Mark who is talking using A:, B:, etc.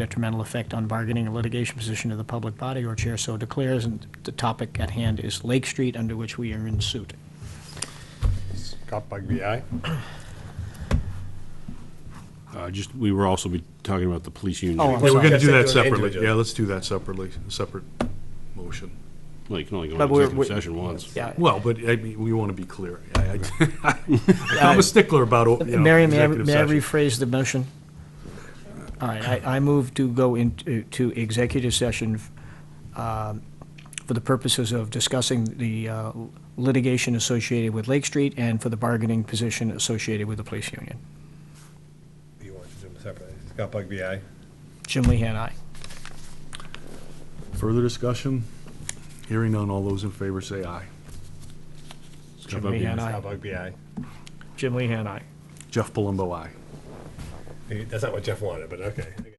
A: detrimental effect on bargaining or litigation position of the public body or chair so declares, and the topic at hand is Lake Street, under which we are in suit.
B: Scott Bugby, aye.
C: Uh, Just, we were also be talking about the police
A: Oh,
C: union.
A: I'm
D: Yeah, we're gonna
B: Yes, they
D: do
B: do
D: that
B: it
D: separately.
B: individually.
D: Yeah, let's do that separately, separate motion.
C: Well, you can only go
A: But
C: into
A: we're-
C: executive
A: we're-
C: session once.
A: Yeah.
D: Well, but I mean, we want to be clear. I- I- I'm a stickler about, you know,
A: Uh, Mary, may I
D: executive
A: may I
D: session.
A: rephrase the motion? All right, I, I move to go into, to executive session um, for the purposes of discussing the uh, litigation associated with Lake Street and for the bargaining position associated with the police union.
B: You want to do them separately. Scott Bugby, aye.
A: Jim Lehan, aye.
D: Further discussion? Hearing none, all those in favor say aye.
A: Jim
C: Bugby,
A: Lehan, aye.
B: Scott Bugby, aye.
A: Jim Lehan, aye.
D: Jeff Palumbo, aye.
B: That's not what Jeff wanted, but okay.